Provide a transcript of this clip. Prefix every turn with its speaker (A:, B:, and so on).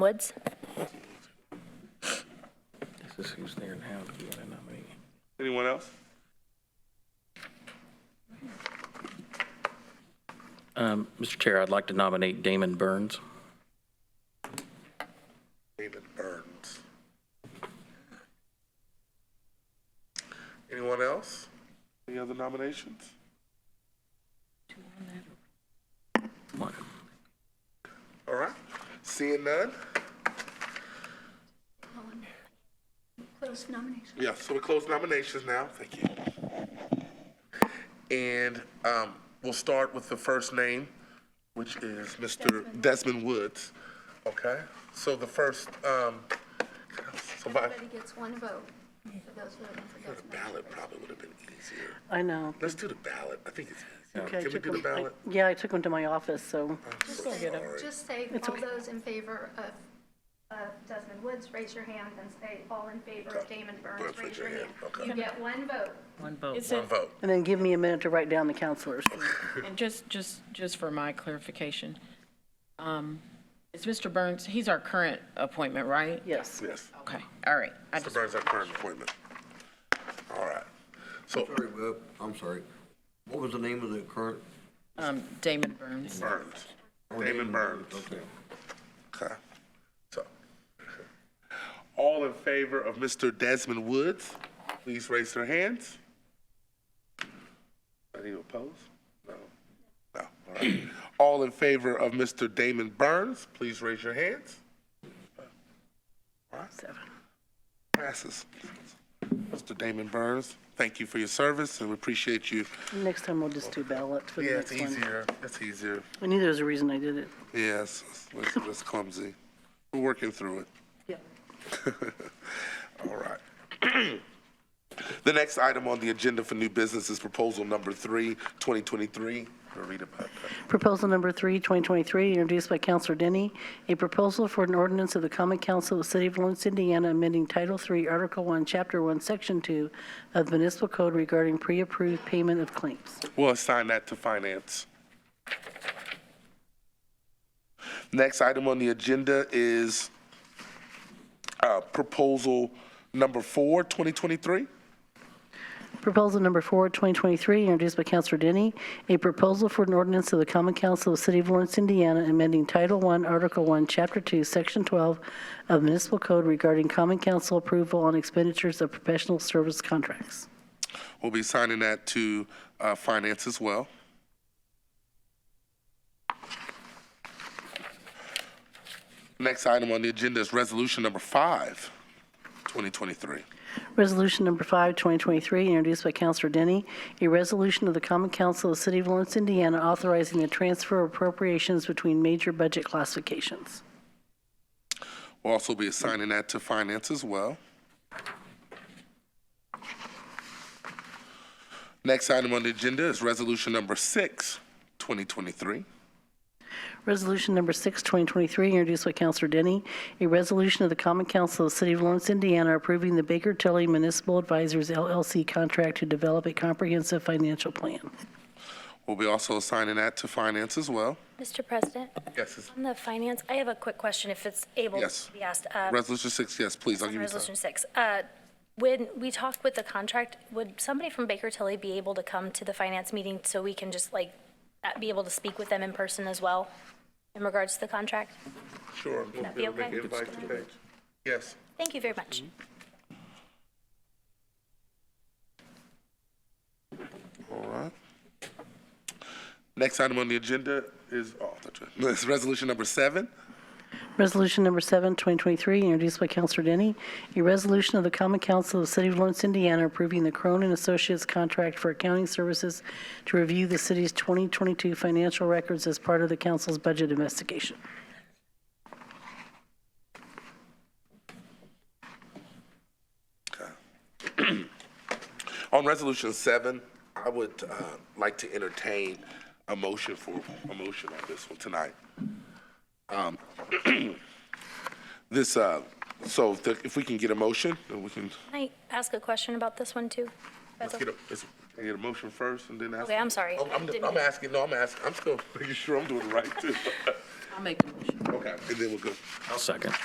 A: Woods?
B: This is who's there now, if you want to nominate.
C: Anyone else?
B: Um, Mr. Chair, I'd like to nominate Damon Burns.
D: David Burns. Anyone else?
C: Any other nominations?
B: Come on.
D: All right, seeing none?
E: Close nomination.
D: Yeah, so we close nominations now, thank you. And um, we'll start with the first name, which is Mr. Desmond Woods. Okay, so the first, um, somebody,
E: Everybody gets one vote for those voting for
D: the
E: Desmond.
D: ballot probably would have been easier.
F: I know.
D: Let's do the ballot, I think it's easier.
F: Okay, I
D: Can we
F: took
D: do the
F: 'em- I-
D: ballot?
F: Yeah, I took them to my office, so
D: I'm so sorry.
E: Just say all those in favor of, of Desmond Woods, raise your hand, and say all in favor of Damon Burns, raise your hand.
D: Okay.
E: You get one vote.
G: Is
D: One
G: it,
D: vote.
F: and then give me a minute to write down the counselors.
G: and just, just, just for my clarification, um, is Mr. Burns, he's our current appointment, right?
F: Yes.
D: Yes.
G: Okay, all right. I
D: Mr.
G: just,
D: Burns, that current appointment. All right. So,
H: Sorry, Bob, I'm sorry. What was the name of the current?
G: um, Damon Burns.
D: Burns. Damon Burns.
H: Okay.
D: Okay. So, all in favor of Mr. Desmond Woods, please raise their hands. Any opposed? No. No. All right. All in favor of Mr. Damon Burns, please raise your hands. All right. Passes. Mr. Damon Burns, thank you for your service, and we appreciate you.
F: Next time we'll just do ballot for the
D: Yeah, it's
F: next one.
D: easier. It's easier.
F: I knew there was a reason I did it.
D: Yes, it's, it's clumsy. We're working through it.
F: Yeah.
D: All right. The next item on the agenda for new business is proposal number three, 2023. Rita Piper.
F: Proposal number three, 2023, introduced by Counselor Denny, a proposal for an ordinance of the Common Council of the City of Lawrence, Indiana, amending Title III, Article 1, Chapter 1, Section 2 of the Municipal Code regarding pre-approved payment of claims.
D: We'll assign that to finance. Next item on the agenda is uh, proposal number four, 2023.
F: Proposal number four, 2023, introduced by Counselor Denny, a proposal for an ordinance of the Common Council of the City of Lawrence, Indiana, amending Title I, Article 1, Chapter 2, Section 12 of Municipal Code regarding common council approval on expenditures of professional service contracts.
D: We'll be signing that to uh, finance as well. Next item on the agenda is resolution number five, 2023.
F: Resolution number five, 2023, introduced by Counselor Denny, a resolution of the Common Council of the City of Lawrence, Indiana, authorizing the transfer of appropriations between major budget classifications.
D: We'll also be assigning that to finance as well. Next item on the agenda is resolution number six, 2023.
F: Resolution number six, 2023, introduced by Counselor Denny, a resolution of the Common Council of the City of Lawrence, Indiana, approving the Baker Tilly Municipal Advisors LLC contract to develop a comprehensive financial plan.
D: We'll be also assigning that to finance as well.
A: Mr. President,
D: Yes, it's-
A: on the finance, I have a quick question if it's able
D: Yes.
A: to be asked. Uh,
D: resolution six, yes, please, I'll
A: on
D: give you time.
A: Resolution six. Uh, When we talk with the contract, would somebody from Baker Tilly be able to come to the finance meeting so we can just like uh, be able to speak with them in person as well in regards to the contract?
D: Sure.
A: that be okay?
D: Invite to page. Yes.
A: Thank you very much.
D: Mm-hmm. All right. Next item on the agenda is, oh, that's right. It's resolution number seven.
F: Resolution number seven, 2023, introduced by Counselor Denny, a resolution of the Common Council of the City of Lawrence, Indiana, approving the Cronin and Associates contract for accounting services to review the city's 2022 financial records as part of the council's budget investigation.
D: On resolution seven, I would uh, like to entertain a motion for, a motion on this one tonight. Um, This, uh, so if the- if we can get a motion, then we can,
A: Can I ask a question about this one too?
D: let's get a, let's get a motion first and then ask.
A: Okay, I'm sorry.
D: Oh, I'm,
A: Didn't-
D: I'm asking, no, I'm asking, I'm still making sure I'm doing it right too.
I: I'll make the motion.
G: Okay, and then we'll go.
D: I'll second.